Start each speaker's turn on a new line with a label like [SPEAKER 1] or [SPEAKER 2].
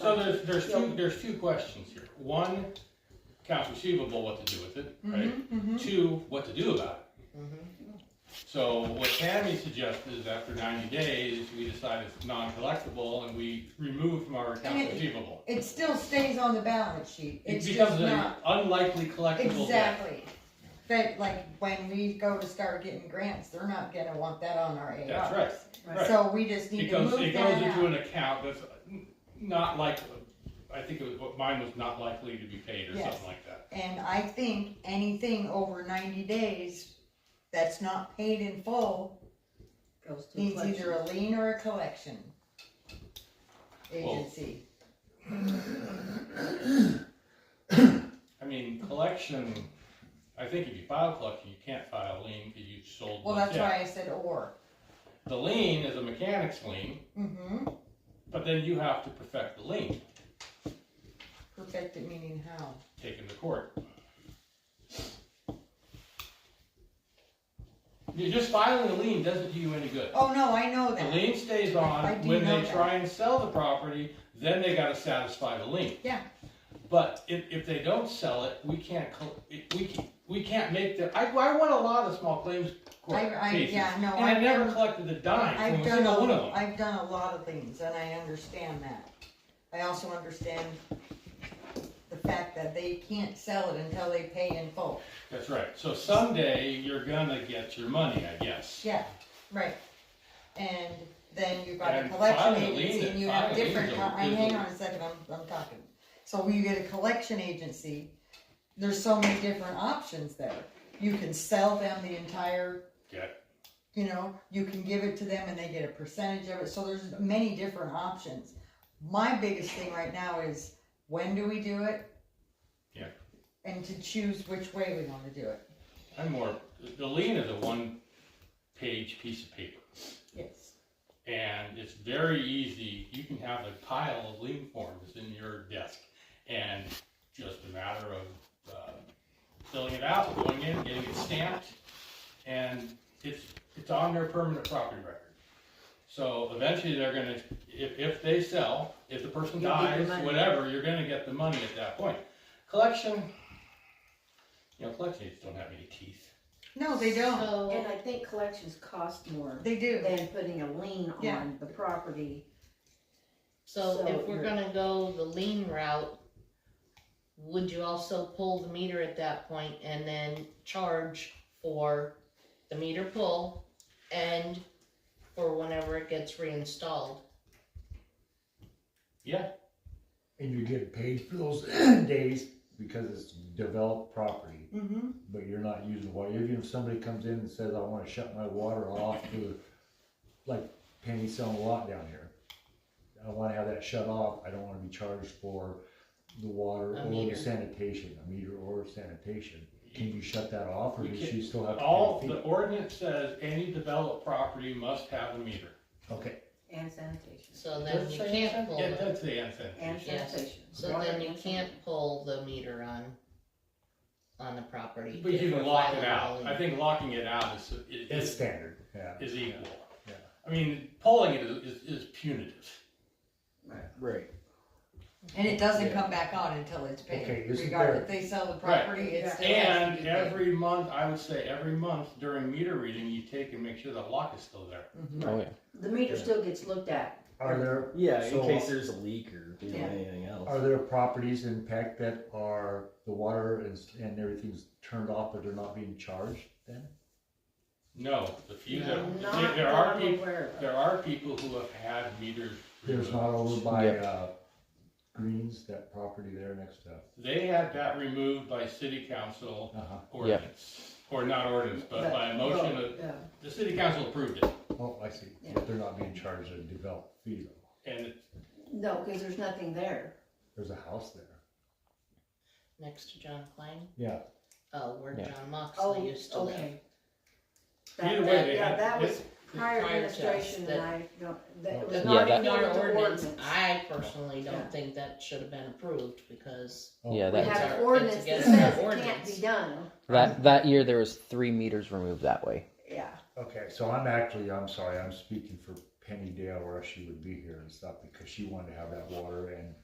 [SPEAKER 1] So there's, there's two, there's two questions here. One, accounts receivable, what to do with it,
[SPEAKER 2] Mm-hmm.
[SPEAKER 1] Mm-hmm, right? Two, what to do about it. So what Tammy suggested is after ninety days, we decide it's non-collectible and we remove from our accounts
[SPEAKER 2] And
[SPEAKER 1] receivable.
[SPEAKER 2] It still stays on the balance sheet,
[SPEAKER 1] It
[SPEAKER 2] it's
[SPEAKER 1] becomes
[SPEAKER 2] just
[SPEAKER 1] an
[SPEAKER 2] not,
[SPEAKER 1] unlikely collectible debt.
[SPEAKER 2] exactly. But like, when we go to start getting grants, they're not gonna want that on our ARs.
[SPEAKER 1] That's right, right.
[SPEAKER 2] So we just need to
[SPEAKER 1] Because it
[SPEAKER 2] move
[SPEAKER 1] goes
[SPEAKER 2] that
[SPEAKER 1] into
[SPEAKER 2] out.
[SPEAKER 1] an account that's not likely, I think it was, what mine was not likely to be paid or
[SPEAKER 2] Yes.
[SPEAKER 1] something like that.
[SPEAKER 2] And I think anything over ninety days that's not paid in full
[SPEAKER 3] Goes to
[SPEAKER 2] means
[SPEAKER 3] collection.
[SPEAKER 2] either a lien or a collection
[SPEAKER 1] Well-
[SPEAKER 2] agency.
[SPEAKER 1] I mean, collection, I think if you file collection, you can't file a lien because you sold.
[SPEAKER 2] Well,
[SPEAKER 1] the
[SPEAKER 2] that's
[SPEAKER 1] debt.
[SPEAKER 2] why I said or.
[SPEAKER 1] The lien is a mechanic's lien,
[SPEAKER 2] Mm-hmm,
[SPEAKER 1] but then you have to perfect the lien,
[SPEAKER 2] perfected meaning how?
[SPEAKER 1] taken to court. You just filing a lien doesn't do you any good.
[SPEAKER 2] Oh, no, I know
[SPEAKER 1] The
[SPEAKER 2] that,
[SPEAKER 1] lien stays
[SPEAKER 2] I
[SPEAKER 1] on,
[SPEAKER 2] do
[SPEAKER 1] when
[SPEAKER 2] know
[SPEAKER 1] they
[SPEAKER 2] that.
[SPEAKER 1] try and sell the property, then they gotta satisfy the lien.
[SPEAKER 2] Yeah.
[SPEAKER 1] But if, if they don't sell it, we can't, col- it- we can't, we can't make the, I, I won a lot of small claims court
[SPEAKER 2] I- I-
[SPEAKER 1] cases.
[SPEAKER 2] yeah, no,
[SPEAKER 1] And I
[SPEAKER 2] I've
[SPEAKER 1] never
[SPEAKER 2] done-
[SPEAKER 1] collected a dime
[SPEAKER 2] I've
[SPEAKER 1] from a
[SPEAKER 2] done,
[SPEAKER 1] single one
[SPEAKER 2] a-
[SPEAKER 1] of them.
[SPEAKER 2] I've done a lot of things, and I understand that. I also understand the fact that they can't sell it until they pay in full.
[SPEAKER 1] That's right, so someday you're gonna get your money, I guess.
[SPEAKER 2] Yeah, right. And then you've got a
[SPEAKER 1] And
[SPEAKER 2] collection
[SPEAKER 1] filing a lien
[SPEAKER 2] agency
[SPEAKER 1] that-
[SPEAKER 2] and you have
[SPEAKER 1] filing a lien
[SPEAKER 2] different,
[SPEAKER 1] is a-
[SPEAKER 2] co- I-
[SPEAKER 1] is a-
[SPEAKER 2] hang on a second, I'm, I'm talking. So when you get a collection agency, there's so many different options there. You can sell them the entire.
[SPEAKER 1] Yeah.
[SPEAKER 2] You know, you can give it to them and they get a percentage of it, so there's many different options. My biggest thing right now is, when do we do it?
[SPEAKER 1] Yeah.
[SPEAKER 2] And to choose which way we wanna do it,
[SPEAKER 1] I'm more, the lien is a one-page piece of paper,
[SPEAKER 2] yes.
[SPEAKER 1] and it's very easy, you can have a pile of lien forms in your desk, and just a matter of, uh, filling it out, going in, getting it stamped, and it's, it's on their permanent property record. So eventually, they're gonna, if, if they sell, if the person
[SPEAKER 3] You'll get the
[SPEAKER 1] dies,
[SPEAKER 3] money.
[SPEAKER 1] whatever, you're gonna get the money at that point. Collection, you know, collection agents don't have any teeth.
[SPEAKER 2] No, they don't,
[SPEAKER 3] And
[SPEAKER 4] So,
[SPEAKER 3] I think collections cost more
[SPEAKER 2] they do.
[SPEAKER 3] than putting a lien
[SPEAKER 2] Yeah.
[SPEAKER 3] on the property.
[SPEAKER 4] so
[SPEAKER 3] So
[SPEAKER 4] if we're
[SPEAKER 3] you're-
[SPEAKER 4] gonna go the lean route, would you also pull the meter at that point and then charge for the meter pull and for whenever it gets reinstalled?
[SPEAKER 5] And you get paid for those days because it's developed property,
[SPEAKER 2] Mm-hmm.
[SPEAKER 5] but you're not using water. Even if somebody comes in and says, I wanna shut my water off to, like Penny's selling a lot down here. I wanna have that shut off. I don't wanna be charged for the water
[SPEAKER 4] A
[SPEAKER 5] or
[SPEAKER 4] meter.
[SPEAKER 5] the sanitation, a meter or sanitation. Can you shut that off or
[SPEAKER 1] We
[SPEAKER 5] does
[SPEAKER 1] can't-
[SPEAKER 5] she still have
[SPEAKER 1] All,
[SPEAKER 5] to pay
[SPEAKER 1] the
[SPEAKER 5] a fee?
[SPEAKER 1] ordinance says any developed property must have a meter.
[SPEAKER 5] Okay,
[SPEAKER 3] And sanitation.
[SPEAKER 4] So then
[SPEAKER 1] Does it
[SPEAKER 4] you
[SPEAKER 1] say
[SPEAKER 4] can't
[SPEAKER 1] anything?
[SPEAKER 4] pull,
[SPEAKER 1] Yeah,
[SPEAKER 4] the-
[SPEAKER 1] it does say anything.
[SPEAKER 3] And
[SPEAKER 4] Yes.
[SPEAKER 3] sanitation.
[SPEAKER 4] so
[SPEAKER 3] Water
[SPEAKER 4] then you
[SPEAKER 3] and
[SPEAKER 4] can't
[SPEAKER 3] sanitation.
[SPEAKER 4] pull the meter on, on the property.
[SPEAKER 1] But
[SPEAKER 4] if
[SPEAKER 1] you can
[SPEAKER 4] we're
[SPEAKER 1] lock it
[SPEAKER 4] filing a
[SPEAKER 1] out.
[SPEAKER 4] lien.
[SPEAKER 1] I think locking it out is,
[SPEAKER 5] it's
[SPEAKER 1] is,
[SPEAKER 5] standard, yeah.
[SPEAKER 1] is equal.
[SPEAKER 5] Yeah.
[SPEAKER 1] I mean, pulling it is, is- is punitive.
[SPEAKER 5] Right.
[SPEAKER 2] And it doesn't
[SPEAKER 5] Yeah.
[SPEAKER 2] come back on until it's
[SPEAKER 5] Okay,
[SPEAKER 2] paid,
[SPEAKER 5] this is
[SPEAKER 2] regardless
[SPEAKER 5] there.
[SPEAKER 2] if they sell the
[SPEAKER 1] Right.
[SPEAKER 2] property, it's still has to be
[SPEAKER 1] And
[SPEAKER 2] paid.
[SPEAKER 1] every month, I would say every month during meter reading, you take and make sure the lock is still there.
[SPEAKER 2] Mhm.
[SPEAKER 6] Oh yeah.
[SPEAKER 3] The meter still gets looked at.
[SPEAKER 5] Are there
[SPEAKER 6] Yeah,
[SPEAKER 5] So-
[SPEAKER 6] in case there's a leak or you know,
[SPEAKER 2] Yeah.
[SPEAKER 6] anything else.
[SPEAKER 5] Are there properties in Peck that are, the water and, and everything's turned off, but they're not being charged then?
[SPEAKER 1] No, the few that,
[SPEAKER 3] Not
[SPEAKER 1] there- there
[SPEAKER 3] that
[SPEAKER 1] are
[SPEAKER 3] I'm
[SPEAKER 1] people,
[SPEAKER 3] aware of.
[SPEAKER 1] there are people who have had meters
[SPEAKER 5] There's
[SPEAKER 1] removed.
[SPEAKER 5] not over by,
[SPEAKER 6] Yep.
[SPEAKER 5] uh, Greens, that property there next to,
[SPEAKER 1] They had that removed by city council
[SPEAKER 5] uh-huh,
[SPEAKER 1] ordinance, or not ordinance, but by a motion of,
[SPEAKER 3] Yeah.
[SPEAKER 1] the city council approved it,
[SPEAKER 5] oh, I see,
[SPEAKER 3] Yeah.
[SPEAKER 5] but they're not being charged a developed fee though,
[SPEAKER 1] and it-
[SPEAKER 3] No, cause there's nothing there.
[SPEAKER 5] there's a house there.
[SPEAKER 4] Next to John Klein,
[SPEAKER 5] Yeah,
[SPEAKER 4] oh, where
[SPEAKER 6] Yeah.
[SPEAKER 4] John
[SPEAKER 3] Oh,
[SPEAKER 4] Moxley used to live.
[SPEAKER 3] okay. That,
[SPEAKER 1] Either way,
[SPEAKER 3] that,
[SPEAKER 1] they
[SPEAKER 3] yeah,
[SPEAKER 1] had-
[SPEAKER 3] that
[SPEAKER 1] they-
[SPEAKER 3] was prior
[SPEAKER 4] prior to us,
[SPEAKER 3] administration
[SPEAKER 4] that-
[SPEAKER 3] and I don't, that was
[SPEAKER 4] That's
[SPEAKER 6] Yeah,
[SPEAKER 3] not
[SPEAKER 4] not
[SPEAKER 3] even
[SPEAKER 4] in
[SPEAKER 3] under
[SPEAKER 4] our
[SPEAKER 3] the
[SPEAKER 4] ordinance,
[SPEAKER 3] ordinance.
[SPEAKER 4] I personally don't
[SPEAKER 3] Yeah.
[SPEAKER 4] think that should have been approved, because
[SPEAKER 5] oh,
[SPEAKER 6] Yeah,
[SPEAKER 3] We
[SPEAKER 6] that-
[SPEAKER 4] It's
[SPEAKER 3] have
[SPEAKER 4] our-
[SPEAKER 3] an
[SPEAKER 4] it's
[SPEAKER 3] ordinance that
[SPEAKER 4] against
[SPEAKER 3] says
[SPEAKER 4] our
[SPEAKER 3] it can't
[SPEAKER 4] ordinance.
[SPEAKER 3] be done,
[SPEAKER 6] That that year there was three meters removed that way.
[SPEAKER 3] yeah.
[SPEAKER 5] Okay, so I'm actually, I'm sorry, I'm speaking for Penny Dale, or else she would be here and stuff, because she wanted to have that water and